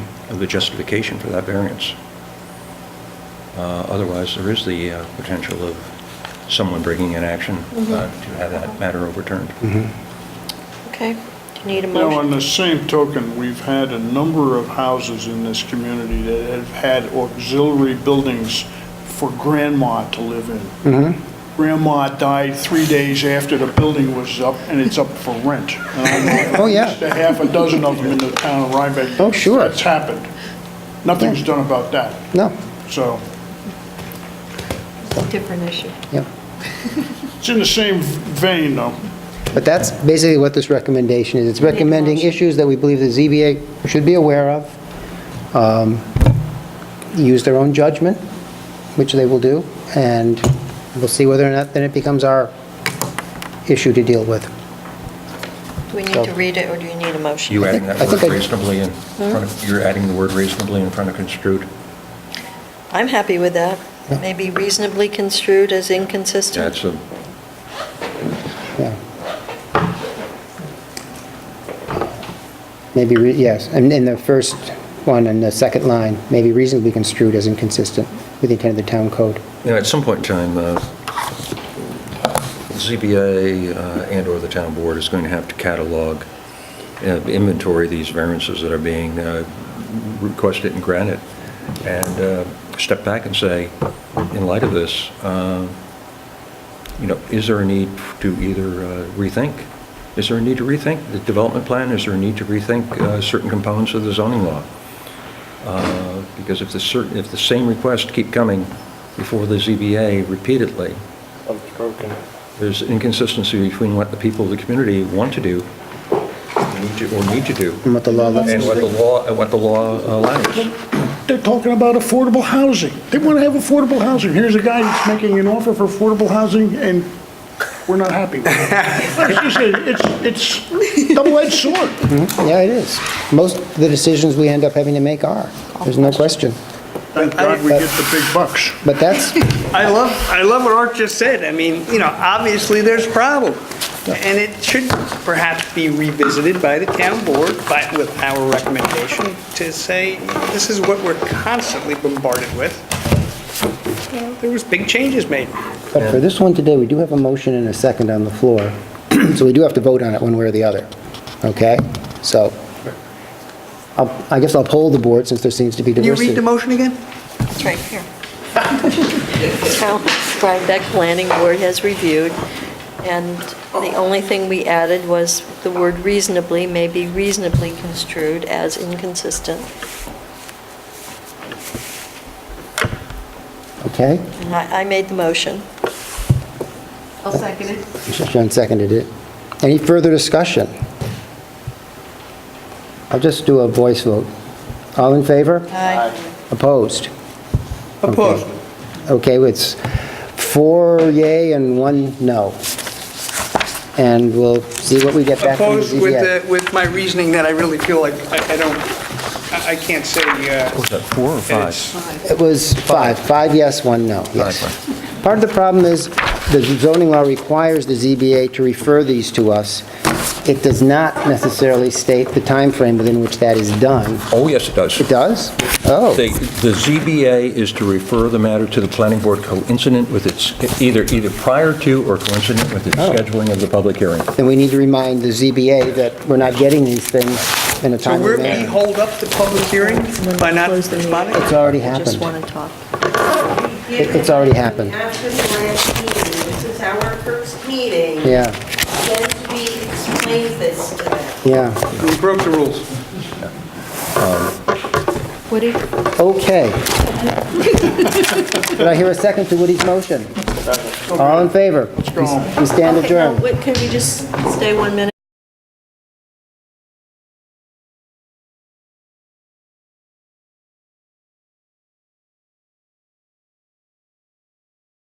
of the justification for that variance. Uh, Otherwise, there is the uh, potential of someone bringing an action uh, to have that matter overturned. Mm-hmm. Okay, do you need a Now, on motion? the same token, we've had a number of houses in this community that have had auxiliary buildings for grandma to live in. Mm-hmm. Grandma died three days after the building was up, and it's up for rent. And I know Oh, yeah. at least a half a dozen of them in the town of Rhinebeck. Oh, sure. That's happened. Nothing's done about that, No, so. Different issue. yeah. It's in the same vein, though. But that's basically what this recommendation is. It's Make a recommending motion. issues that we believe the ZBA should be aware of, um, use their own judgment, which they will do, and we'll see whether or not then it becomes our issue to deal with. Do we need So- to read it, or do you need a motion? You adding that I think word I- reasonably in front of, you're adding the word reasonably in front of construed. I'm happy with that. Maybe reasonably construed as inconsistent. That's a, Yeah. Maybe, re- yes, and in the first one and the second line, maybe reasonably construed as inconsistent with the intent of the town code. you know, at some point in time, uh, ZBA uh, and/or the town board is going to have to catalog, uh, inventory these variances that are being uh, requested and granted, and uh, step back and say, in light of this, uh, you know, is there a need to either uh, rethink? Is there a need to rethink the development plan? Is there a need to rethink uh, certain components of the zoning law? Uh, Because if the certain, if the same requests keep coming before the ZBA repeatedly, there's inconsistency between what the people of the community want to do, need to- or need to do, And what the law lets and us what the law, and what the law uh, allows. They're talking about affordable housing. They want to have affordable housing. Here's a guy that's making an offer for affordable housing, and we're not happy with it. It's just a- It's, it's double-edged sword. Yeah, it is. Most of the decisions we end up having to make are, there's no question. Thank God we get the big bucks. But that's, I love, I love what Art just said. I mean, you know, obviously there's a problem. And it should perhaps be revisited by the town board, but with our recommendation to say, this is what we're constantly bombarded with. You know, There was big changes made. but for this one today, we do have a motion and a second on the floor, so we do have to vote on it one way or the other, okay? So, I'll- I guess I'll poll the board since there seems to be Can you diversity. read the motion again? It's right here. Town Rhinebeck Planning Board has reviewed, and the only thing we added was the word reasonably, may be reasonably construed as inconsistent. Okay, And I I made the motion. I'll second it. John seconded it. Any further discussion? I'll just do a voice vote. All in favor? Aye. Opposed? Opposed. Okay, it's four yay and one no. And we'll see what we get back from the Opposed with, ZBA. the- with my reasoning that I really feel like I I don't, I I can't say, uh, Was that four or five? it's- It was five, five yes, one no, yes. Five, Part of the problem is the zoning law requires the ZBA to refer these to us. It does not necessarily state the time frame within which that is done. Oh, yes, it does. It does? Oh, The the ZBA is to refer the matter to the planning board coincident with its, either, either prior to or coincident with its Oh. scheduling of the public hearing. then we need to remind the ZBA that we're not getting these things in a so timely we're, we manner. hold up the public hearing by not responding? It's already Just happened. want to talk. It- it's already happened. After the last meeting, this is our first meeting. Yeah, Then we explain this to them. yeah. We broke the rules. Woody? Okay. Did I hear a second to Woody's motion? All in favor? go home. We stand Okay, now, adjourned. wait, Can we just stay one minute?